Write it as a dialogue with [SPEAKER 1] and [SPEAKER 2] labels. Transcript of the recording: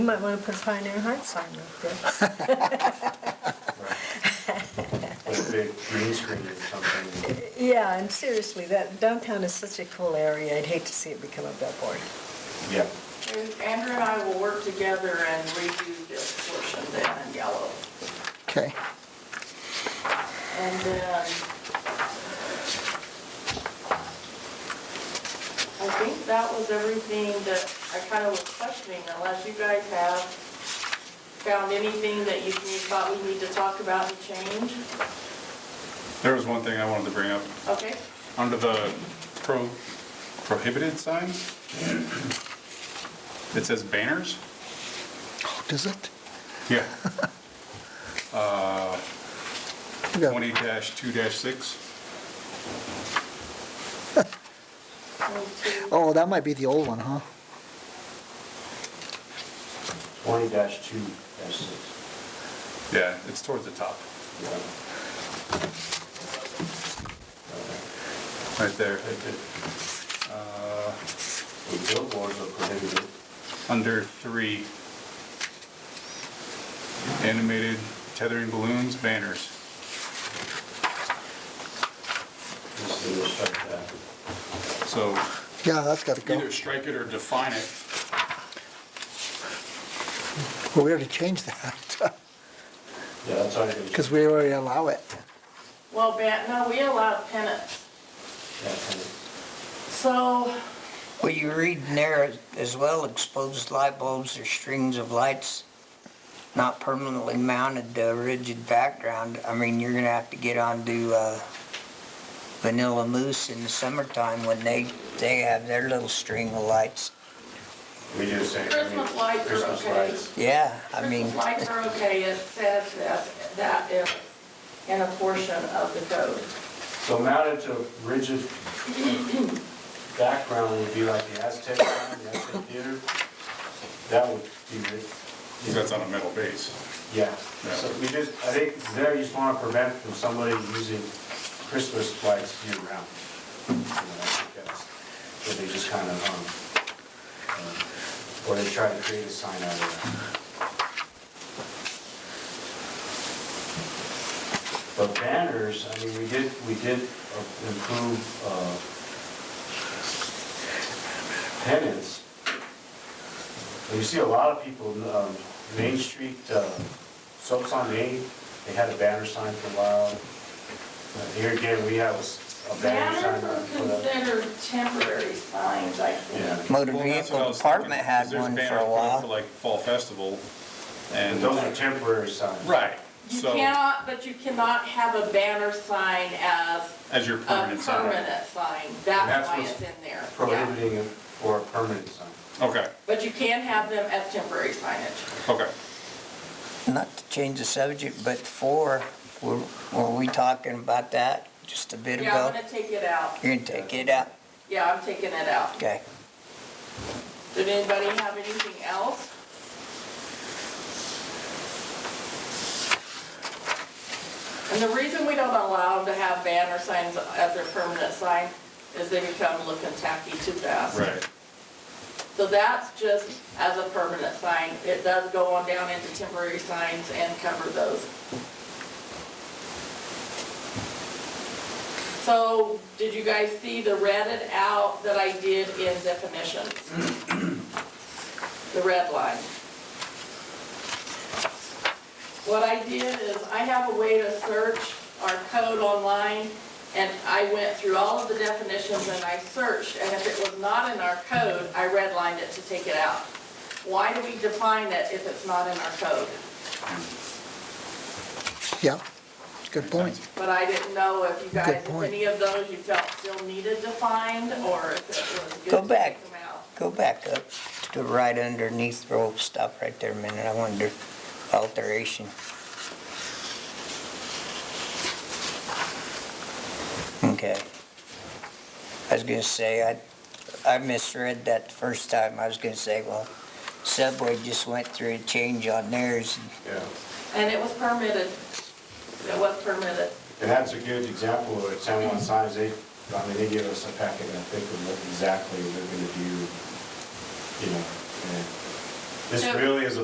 [SPEAKER 1] You might want to put a Pioneer Heights sign up there.
[SPEAKER 2] Like a big green screen or something.
[SPEAKER 1] Yeah, and seriously, that downtown is such a cool area, I'd hate to see it become a billboard.
[SPEAKER 2] Yeah.
[SPEAKER 3] And Andrew and I will work together and redo this portion then in yellow.
[SPEAKER 4] Okay,
[SPEAKER 3] And then, I think that was everything that I kind of was questioning, unless you guys have found anything that you can- you thought we need to talk about and change.
[SPEAKER 5] There was one thing I wanted to bring up.
[SPEAKER 3] Okay?
[SPEAKER 5] Under the pro- prohibited signs, it says banners.
[SPEAKER 4] Oh, does it?
[SPEAKER 5] Yeah. Uh,
[SPEAKER 4] We got-
[SPEAKER 5] 20-2-6.
[SPEAKER 3] One, two,
[SPEAKER 4] Oh, that might be the old one, huh?
[SPEAKER 2] Twenty dash two dash six.
[SPEAKER 5] Yeah, it's towards the top,
[SPEAKER 2] Yeah.
[SPEAKER 5] right there.
[SPEAKER 2] Right there.
[SPEAKER 5] Uh,
[SPEAKER 2] The billboards are prohibited.
[SPEAKER 5] Under three, animated tethering balloons, banners.
[SPEAKER 2] This is restrict that.
[SPEAKER 5] So
[SPEAKER 4] Yeah, that's gotta go.
[SPEAKER 5] either strike it or define it.
[SPEAKER 4] Well, we already changed that,
[SPEAKER 2] Yeah, that's already. been-
[SPEAKER 4] because we already allow it.
[SPEAKER 3] Well, ban, no, we allowed pennants.
[SPEAKER 2] Yeah, kind of.
[SPEAKER 3] So,
[SPEAKER 6] Well, you read in there as well, exposed light bulbs or strings of lights not permanently mounted to a rigid background. I mean, you're gonna have to get onto, uh, Vanilla Moose in the summertime when they, they have their little string of lights.
[SPEAKER 2] We do the same. I mean,
[SPEAKER 3] Christmas lights are
[SPEAKER 2] Christmas
[SPEAKER 3] okay.
[SPEAKER 2] lights.
[SPEAKER 6] Yeah, I mean,
[SPEAKER 3] Christmas lights are okay, it says that, that is in a portion of the code.
[SPEAKER 2] So mounted to rigid background would be like the Aztec sign, the Aztec theater. That would be ri-
[SPEAKER 5] That's on a metal base.
[SPEAKER 2] Yeah,
[SPEAKER 5] Yeah.
[SPEAKER 2] so we just, I think there you just want to prevent from somebody using Christmas lights year round. You know, I think that's Where they just kind of, um, um, or they try to create a sign out of that. But banners, I mean, we did, we did uh, improve, uh, pennants. And You see a lot of people, um, Main Street, uh, Soaps on Main, they had a banner sign for a while. Uh, Here again, we have a s- a banner sign.
[SPEAKER 3] Banners
[SPEAKER 2] that
[SPEAKER 3] are
[SPEAKER 2] we put up.
[SPEAKER 3] considered temporary signs, I think.
[SPEAKER 2] Yeah,
[SPEAKER 6] motor
[SPEAKER 5] Well, that's what I
[SPEAKER 6] vehicle
[SPEAKER 5] was thinking,
[SPEAKER 6] department
[SPEAKER 5] 'cause
[SPEAKER 6] had
[SPEAKER 5] there's
[SPEAKER 6] one for
[SPEAKER 5] banners
[SPEAKER 6] a
[SPEAKER 5] put up For
[SPEAKER 6] while.
[SPEAKER 5] like Fall Festival
[SPEAKER 2] and
[SPEAKER 5] and.
[SPEAKER 2] those are temporary signs.
[SPEAKER 5] Right,
[SPEAKER 3] You
[SPEAKER 5] so
[SPEAKER 3] cannot, but you cannot have a banner sign as
[SPEAKER 5] as your
[SPEAKER 3] a
[SPEAKER 5] permanent
[SPEAKER 3] permanent
[SPEAKER 5] sign.
[SPEAKER 3] sign.
[SPEAKER 2] That's
[SPEAKER 3] That's why
[SPEAKER 2] what's
[SPEAKER 3] it's in there. Yeah.
[SPEAKER 2] Prohibiting it for a permanent sign.
[SPEAKER 5] Okay,
[SPEAKER 3] But you can have them as temporary signage.
[SPEAKER 5] okay.
[SPEAKER 6] Not to change the subject, but four, were, were we talking about that just a bit
[SPEAKER 3] Yeah, I'm
[SPEAKER 6] ago?
[SPEAKER 3] gonna take it out.
[SPEAKER 6] You're gonna take it out?
[SPEAKER 3] Yeah, I'm taking it out.
[SPEAKER 6] Okay.
[SPEAKER 3] Did anybody have anything else? And the reason we don't allow them to have banner signs as their permanent sign is they become looking tacky too fast.
[SPEAKER 5] Right.
[SPEAKER 3] So that's just as a permanent sign. It does go on down into temporary signs and cover those. So did you guys see the redded out that I did in definitions? The red line. What I did is I have a way to search our code online and I went through all of the definitions and I searched, and if it was not in our code, I redlined it to take it out. Why do we define it if it's not in our code?
[SPEAKER 4] Yeah, good point.
[SPEAKER 3] But I didn't know if you guys,
[SPEAKER 4] Good
[SPEAKER 3] if
[SPEAKER 4] point.
[SPEAKER 3] any of those you felt still needed defined, or if it was
[SPEAKER 6] Go
[SPEAKER 3] good to
[SPEAKER 6] back.
[SPEAKER 3] take them out.
[SPEAKER 6] Go back up to right underneath, oh, stop right there a minute, I wonder, alteration. Okay. I was gonna say, I, I misread that the first time, I was gonna say, well, Subway just went through a change on theirs,
[SPEAKER 2] Yeah.
[SPEAKER 3] And it was permitted. It was permitted.
[SPEAKER 2] And that's a good example of it, San Juan signs, they, I mean, they give us a packet, I think, of what exactly they're gonna do, you know, and This
[SPEAKER 3] So-
[SPEAKER 2] really is a